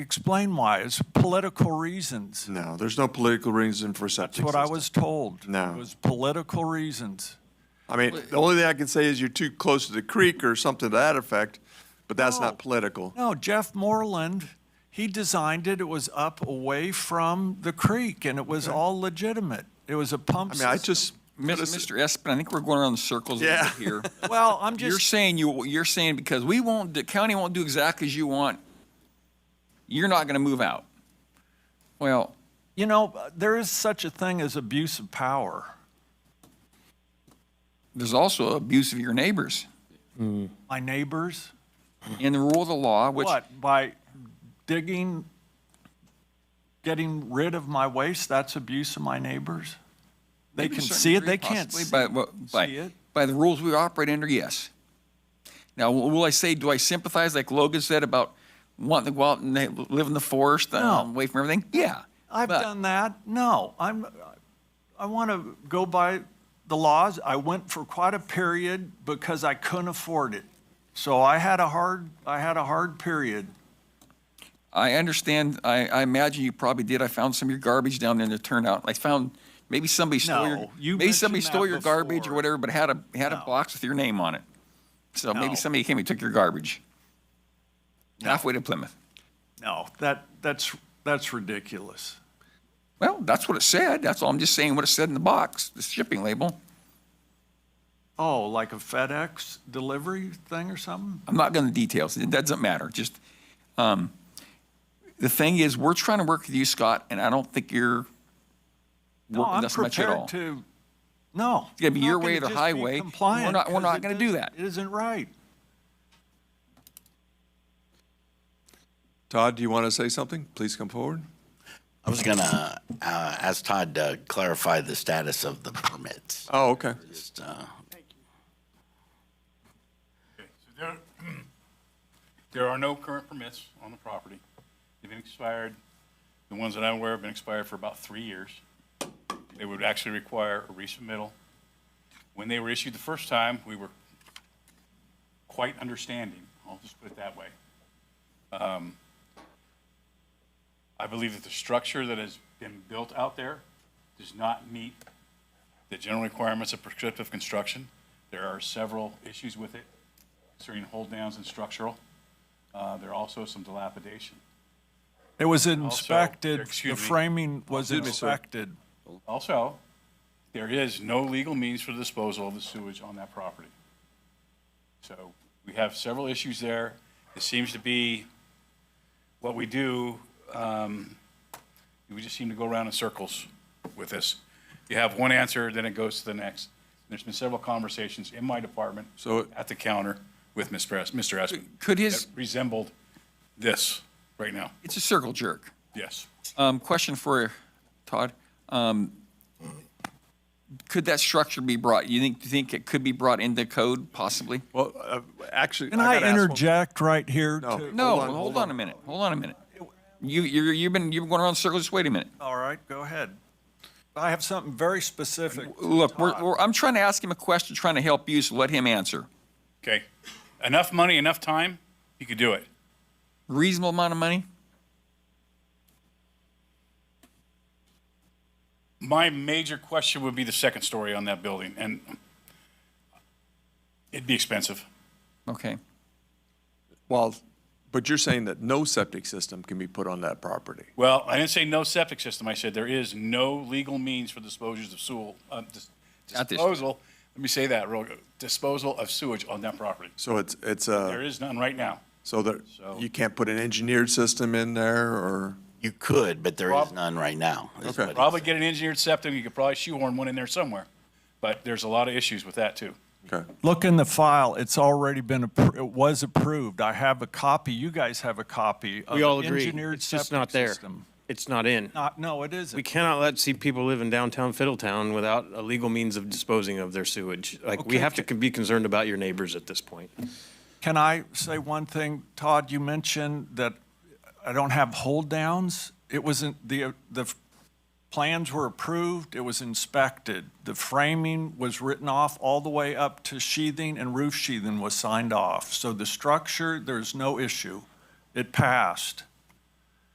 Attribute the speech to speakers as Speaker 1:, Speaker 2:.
Speaker 1: Explain why. It's political reasons.
Speaker 2: No, there's no political reason for
Speaker 1: That's
Speaker 2: septic
Speaker 1: what I
Speaker 2: system.
Speaker 1: was told.
Speaker 2: No.
Speaker 1: It was political reasons.
Speaker 2: I mean, the only thing I can say is you're too close to the creek or something to that effect, but that's
Speaker 1: No.
Speaker 2: not political.
Speaker 1: No, Jeff Moreland, he designed it. It was up away from the creek and it was all legitimate. It was a pump
Speaker 2: I mean, I
Speaker 1: system.
Speaker 2: just,
Speaker 3: Mis- Mr. Espin, I think we're going around in circles a little
Speaker 2: Yeah.
Speaker 3: bit here.
Speaker 1: Well, I'm
Speaker 3: You're
Speaker 1: just,
Speaker 3: saying, you, you're saying because we won't, the county won't do exactly as you want, you're not going to move out. Well,
Speaker 1: you know, there is such a thing as abuse of power.
Speaker 3: there's also abuse of your neighbors.
Speaker 1: My neighbors,
Speaker 3: And the rule of the law, which,
Speaker 1: what, by digging, getting rid of my waste, that's abuse of my neighbors? They
Speaker 3: Maybe
Speaker 1: can
Speaker 3: a certain
Speaker 1: see it,
Speaker 3: degree
Speaker 1: they can't
Speaker 3: possibly,
Speaker 1: see
Speaker 3: by- by- by-
Speaker 1: see it.
Speaker 3: By the rules we operate under, yes. Now, w- will I say, do I sympathize, like Logan said, about wanting to go out and they live in the forest, um, away from everything? Yeah.
Speaker 1: I've
Speaker 3: But-
Speaker 1: done that. No, I'm, I want to go by the laws. I went for quite a period because I couldn't afford it. So I had a hard, I had a hard period.
Speaker 3: I understand, I, I imagine you probably did. I found some of your garbage down there in the turnout. I found, maybe somebody stole your,
Speaker 1: No, you
Speaker 3: maybe somebody
Speaker 1: mentioned
Speaker 3: stole
Speaker 1: that
Speaker 3: your garbage or
Speaker 1: before.
Speaker 3: whatever, but had a, had a
Speaker 1: No.
Speaker 3: box with your name on it. So
Speaker 1: No.
Speaker 3: maybe somebody came and took your garbage. Halfway to Plymouth.
Speaker 1: No, that, that's, that's ridiculous.
Speaker 3: Well, that's what it said. That's all. I'm just saying what it said in the box, the shipping label.
Speaker 1: Oh, like a FedEx delivery thing or something?
Speaker 3: I'm not going to details. It doesn't matter. Just, um, the thing is, we're trying to work with you, Scgot, and I don't think you're
Speaker 1: No,
Speaker 3: working
Speaker 1: I'm
Speaker 3: us much at
Speaker 1: prepared
Speaker 3: all.
Speaker 1: to, no. It's
Speaker 3: gonna be your way or the highway, and we're not- we're not gonna do that.
Speaker 1: It isn't right.
Speaker 2: Todd, do you want to say something? Please come forward.
Speaker 4: I was gonna uh, ask Todd to clarify the status of the permits.
Speaker 2: Oh, okay.
Speaker 4: Just, uh,
Speaker 5: So There, there are no current permits on the property. They've been expired, the ones that I'm aware of have been expired for about three years. They would actually require a resubmittal. When they were issued the first time, we were quite understanding, I'll just put it that way. Um, I believe that the structure that has been built out there does not meet the general requirements of prescriptive construction. There are several issues with it concerning hold downs and structural. Uh, There are also some dilapidation.
Speaker 1: It was inspected, the
Speaker 5: excuse me.
Speaker 1: framing was
Speaker 2: Excuse me, sir.
Speaker 1: inspected.
Speaker 5: Also, there is no legal means for disposal of the sewage on that property. So we have several issues there. It seems to be what we do, um, we just seem to go around in circles with this. You have one answer, then it goes to the next. There's been several conversations in my department,
Speaker 2: So-
Speaker 5: at the counter with Mr. Es- Mr. Espin.
Speaker 3: Could his-
Speaker 5: that Resembled this right now,
Speaker 3: It's a circle jerk.
Speaker 5: yes.
Speaker 3: Um, question for Todd. Um, could that structure be brought, you think, you think it could be brought into code possibly?
Speaker 2: Well, uh, actually.
Speaker 1: Can I
Speaker 2: gotta ask one-
Speaker 1: interject right here?
Speaker 2: No.
Speaker 1: too?
Speaker 3: No,
Speaker 2: on,
Speaker 3: well,
Speaker 2: hold
Speaker 3: hold on a minute, hold on a minute. You, you're, you've been, you've been going around in circles, just wait a minute.
Speaker 1: All right, go ahead. I have something very specific.
Speaker 3: Look, we're, we're, I'm trying to ask him a question, trying to help you, so let him answer.
Speaker 5: Okay. Enough money, enough time, you could do it.
Speaker 3: Reasonable amount of money?
Speaker 5: My major question would be the second story on that building, and it'd be expensive.
Speaker 3: Okay.
Speaker 2: Well, but you're saying that no septic system can be put on that property.
Speaker 5: Well, I didn't say no septic system. I said there is no legal means for disposals of sewer, uh, dis-
Speaker 3: Not this-
Speaker 5: disposal, let me say that real, disposal of sewage on that property.
Speaker 2: So it's, it's
Speaker 5: There
Speaker 2: a,
Speaker 5: is none right now.
Speaker 2: so that,
Speaker 5: So-
Speaker 2: you can't put an engineered system in there or?
Speaker 4: you could, but there is
Speaker 5: Prob-
Speaker 4: none right now. is
Speaker 2: Okay.
Speaker 4: what he
Speaker 5: Probably
Speaker 4: said.
Speaker 5: get an engineered septic, you could probably shoehorn one in there somewhere, but there's a lot of issues with that, too.
Speaker 2: Okay.
Speaker 1: Look in the file, it's already been, appro- it was approved. I have a copy, you guys have a copy of
Speaker 6: We all agree.
Speaker 1: engineered
Speaker 6: It's just
Speaker 1: septic
Speaker 6: not there.
Speaker 1: system.
Speaker 6: It's not in.
Speaker 1: Not, no, it
Speaker 6: We
Speaker 1: isn't.
Speaker 6: cannot let see people live in downtown Fiddletown without a legal means of disposing of their sewage. Like, we
Speaker 1: Okay,
Speaker 6: have to con- be concerned about your neighbors at this point.
Speaker 1: Can I say one thing? Todd, you mentioned that I don't have hold downs. It wasn't, the, the plans were approved, it was inspected. The framing was written off all the way up to sheathing and roof sheathing was signed off. So the structure, there's no issue. It passed.